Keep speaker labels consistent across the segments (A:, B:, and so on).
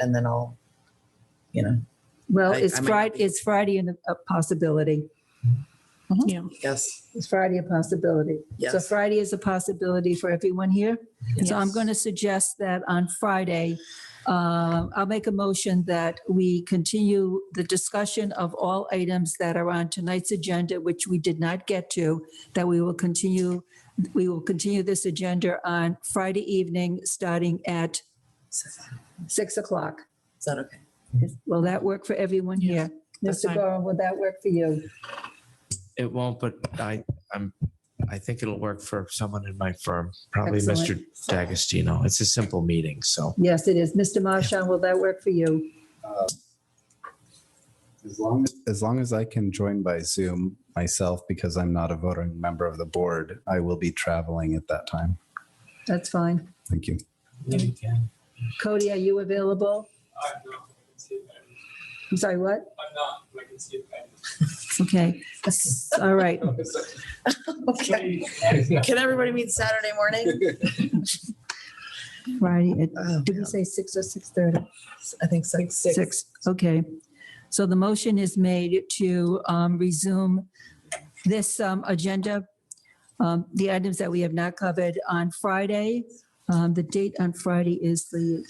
A: and then I'll, you know,
B: Well,
A: I-
B: it's
A: I might not
B: Friday,
A: be-
B: it's Friday in a possibility.
A: yes,
B: It's Friday a possibility? So
A: yes.
B: Friday is a possibility for everyone here. So I'm
C: Yes.
B: going to suggest that on Friday, uh, I'll make a motion that we continue the discussion of all items that are on tonight's agenda, which we did not get to, that we will continue, we will continue this agenda on Friday evening, starting at
A: Is
B: 6 o'clock.
A: that okay?
B: Will that work for everyone here?
C: that's
B: Mr.
C: fine.
B: Gorham, will that work for you?
D: It won't, but I, I'm, I think it'll work for someone in my firm, probably Mr. D'Agostino. It's a simple meeting, so.
B: Yes, it is. Mr. Marshon, will that work for you?
E: As long as, as long as I can join by Zoom myself, because I'm not a voting member of the board, I will be traveling at that time.
B: That's fine.
E: Thank you.
B: Cody, are you available?
F: I'm not. I can see it better.
B: I'm sorry, what?
F: I'm not. but I can see it better.
B: Okay. All right.
A: Okay. Can everybody meet Saturday morning?
B: Friday, at-
A: Oh,
B: did we say six or 6:30?
A: I think six.
B: Six, okay. So the motion is made to um, resume this um, agenda, um, the items that we have not covered on Friday. Um, The date on Friday is the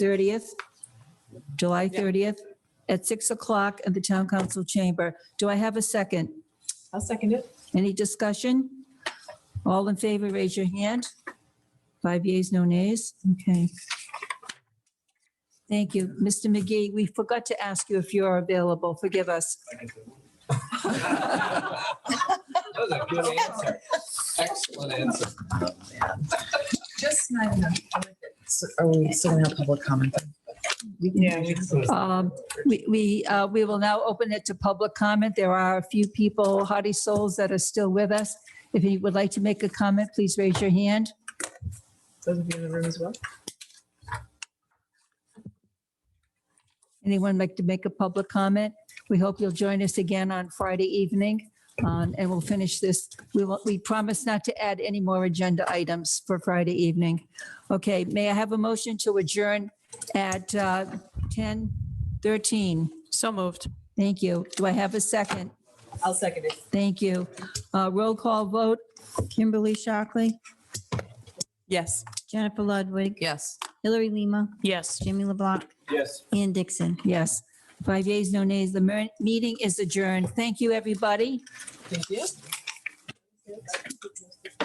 B: 30th, July 30th, at 6 o'clock at the Town Council Chamber. Do I have a second?
C: I'll second it.
B: Any discussion? All in favor, raise your hand. Five yeas, no nays. Okay. Thank you. Mr. McGee, we forgot to ask you if you're available. Forgive us.
F: That was a good answer. Excellent answer.
A: Just not enough. So Are we still gonna have public comment?
C: Yeah.
B: Um, We, we, uh, we will now open it to public comment. There are a few people, hearty souls, that are still with us. If you would like to make a comment, please raise your hand.
C: Those of you in the room as well.
B: Anyone like to make a public comment? We hope you'll join us again on Friday evening, um, and we'll finish this. We will, we promise not to add any more agenda items for Friday evening. Okay, may I have a motion to adjourn at uh, 10:13?
C: So moved.
B: Thank you. Do I have a second?
C: I'll second it.
B: Thank you. Uh, Roll call vote.
G: Kimberly Shockley,
C: Yes.
G: Jennifer Ludwig,
C: Yes.
G: Hillary Lima,
C: Yes.
G: Jimmy LeBlanc,
F: Yes.
G: Ann Dixon.
B: Yes. Five yeas, no nays. The mer- meeting is adjourned. Thank you, everybody.
C: Thank you.